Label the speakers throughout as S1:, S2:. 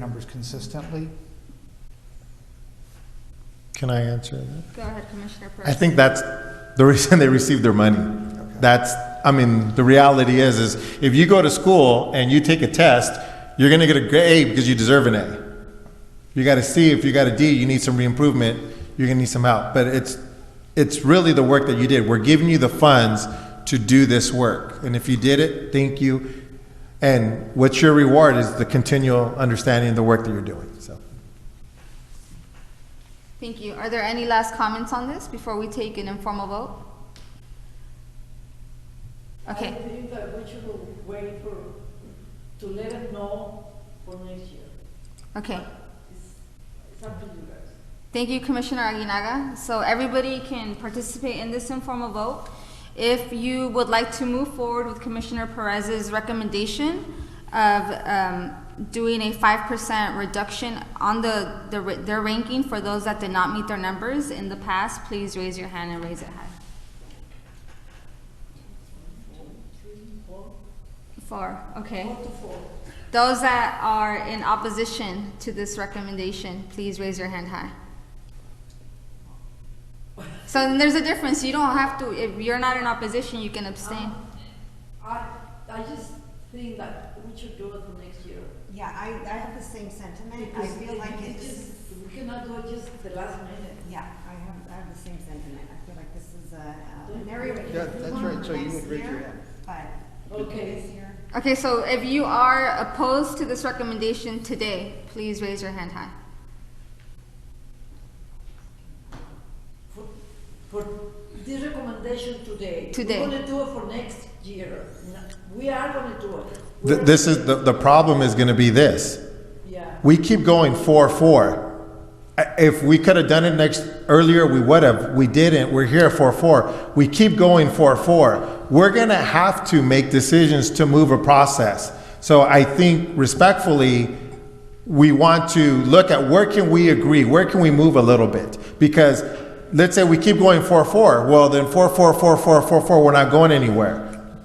S1: numbers consistently.
S2: Can I answer that?
S3: Go ahead, Commissioner
S2: I
S3: Perez.
S2: think that's the reason they receive their money. That's, I mean, the reality is, is if you go to school and you take a test, you're gonna get a grade because you deserve an A. You got a C, if you got a D, you need some re-improvement, you're gonna need some help. But it's, it's really the work that you did. We're giving you the funds to do this work. And if you did it, thank you. And what's your reward is the continual understanding of the work that you're doing, so.
S3: Thank you. Are there any last comments on this before we take an informal vote?
S4: I
S3: Okay,
S4: believe that we should wait for, to let it know for next year.
S3: okay.
S4: It's up to you guys.
S3: Thank you, Commissioner Aguinaga. So everybody can participate in this informal vote. If you would like to move forward with Commissioner Perez's recommendation of um, doing a five percent reduction on the, the ra- their ranking for those that did not meet their numbers in the past, please raise your hand and raise it high. Four, okay. Those that are in opposition to this recommendation, please raise your hand high. So then there's a difference, you don't have to, if you're not in opposition, you can abstain.
S4: I, I just think that we should do it for next year.
S5: Yeah, I, I have the same sentiment. I
S4: Because
S5: feel like
S4: it
S5: it's,
S4: just- We cannot do it just the last minute.
S5: yeah, I have, I have the same sentiment. I feel like this is a, uh, an area we
S6: Yeah,
S5: can
S6: that's
S5: improve on
S6: right. So you
S5: next
S6: would raise your
S5: year,
S6: hand.
S5: But
S4: Okay.
S5: this year,
S3: Okay, so if you are opposed to this recommendation today, please raise your hand high.
S4: For, for this recommendation today.
S3: Today.
S4: We're gonna do it for next year. No, We are gonna do it.
S2: Th-
S4: We're-
S2: This is, the, the problem is gonna be this.
S4: Yeah.
S2: We keep going four four. I- If we could have done it next earlier, we would have. We didn't. We're here four four. We keep going four four. We're gonna have to make decisions to move a process. So I think respectfully, we want to look at where can we agree, where can we move a little bit? Because let's say we keep going four four. Well, then four four four four four four. We're not going anywhere.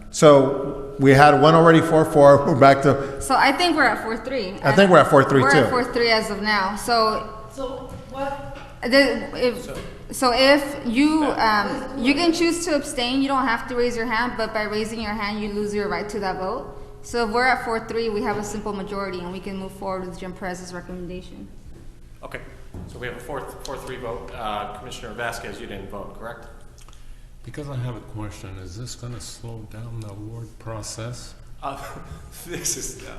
S2: So we had one already four four. We're back to.
S3: So I think we're at four three.
S2: I think we're at 4-3
S3: We're at
S2: too.
S3: four three as of now, so
S4: So what,
S3: the, if, so if you, um, you can choose to abstain, you don't have to raise your hand, but by raising your hand, you lose your right to that vote. So if we're at four three, we have a simple majority and we can move forward with Jim Perez's recommendation.
S7: Okay, so we have a fourth, four-three vote. Uh, Commissioner Vasquez, you didn't vote, correct?
S8: Because I have a question, is this gonna slow down the award process?
S7: Uh, this is, uh,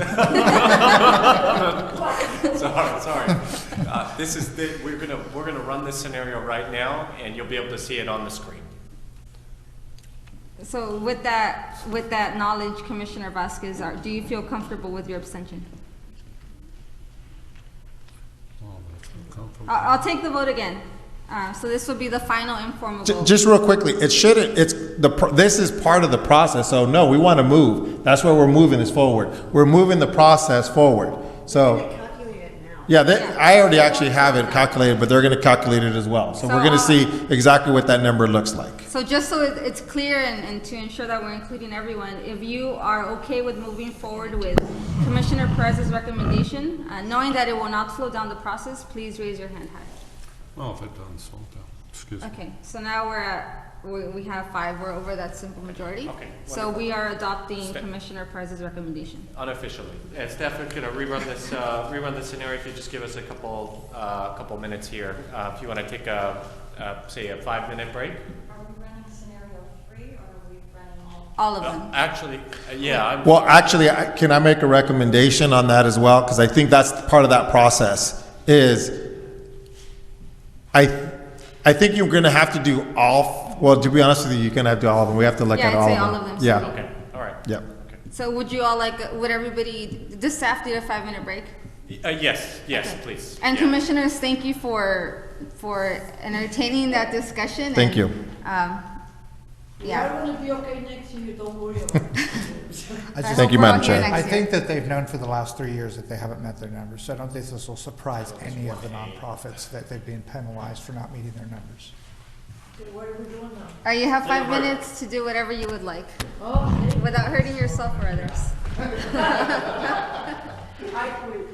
S7: sorry, sorry. Uh, this is, the- we're gonna, we're gonna run this scenario right now, and you'll be able to see it on the screen.
S3: So with that, with that knowledge, Commissioner Vasquez, are- do you feel comfortable with your abstention?
S8: Oh, that's uncomfortable.
S3: I'll, I'll take the vote again. Uh, so this will be the final informal
S2: J-
S3: vote.
S2: Just real quickly, it shouldn't, it's, the, pr- this is part of the process, so no, we want to move. That's where we're moving this forward. We're moving the process forward.
S5: we're
S2: So,
S5: gonna calculate it now.
S2: yeah, they- I already actually have it calculated, but they're going to calculate it as well. So
S3: So,
S2: we're going
S3: uh,
S2: to see exactly what that number looks like.
S3: So just so it- it's clear and, and to ensure that we're including everyone, if you are okay with moving forward with Commissioner Perez's recommendation, uh, knowing that it will not slow down the process, please raise your hand high.
S8: Well, if it doesn't slow down, excuse me.
S3: Okay, so now we're at, we, we have five, we're over that simple majority.
S7: Okay,
S3: So we are adopting
S7: Step-
S3: Commissioner Perez's recommendation.
S7: Unofficially. Uh, Steph, we're gonna rerun this, uh, rerun this scenario, if you just give us a couple, uh, couple minutes here. Uh, if you wanna take a, uh, say, a five-minute break?
S9: Are we running scenario three, or are we running all?
S3: All of
S7: Uh,
S3: them.
S7: Actually, uh, yeah, I'm,
S2: Well, actually, I- can I make a recommendation on that as well? Because I think that's part of that process, is I, I think you're going to have to do all, f- well, to be honest with you, you're going to have to do all of them. We have to look
S3: Yeah,
S2: at
S3: I'd
S2: all of
S3: say
S2: them.
S3: all of them, so we-
S2: Yeah,
S7: okay, all right.
S2: yeah.
S7: Okay.
S3: So would you all like, would everybody, does staff need a five-minute break?
S7: Uh, yes, yes,
S3: Okay.
S7: please.
S3: And
S7: Yeah.
S3: commissioners, thank you for, for entertaining that discussion.
S2: Thank
S3: and,
S2: you.
S3: um,
S4: we are
S3: Yeah.
S4: gonna be okay next year, don't worry about it.
S1: I
S3: I
S1: just-
S2: Thank
S3: hope
S2: you,
S3: we're
S2: Madam
S3: all here
S2: Chair.
S3: next
S1: I
S3: year.
S1: think that they've known for the last three years that they haven't met their numbers, so I don't think this will surprise any of the nonprofits that they've been penalized for not meeting their numbers.
S4: Okay, What are we doing now?
S3: All right, you have five
S7: Yeah, we're-
S3: minutes to do whatever you would like,
S4: Oh,
S3: without hurting yourself or others.
S4: I quit.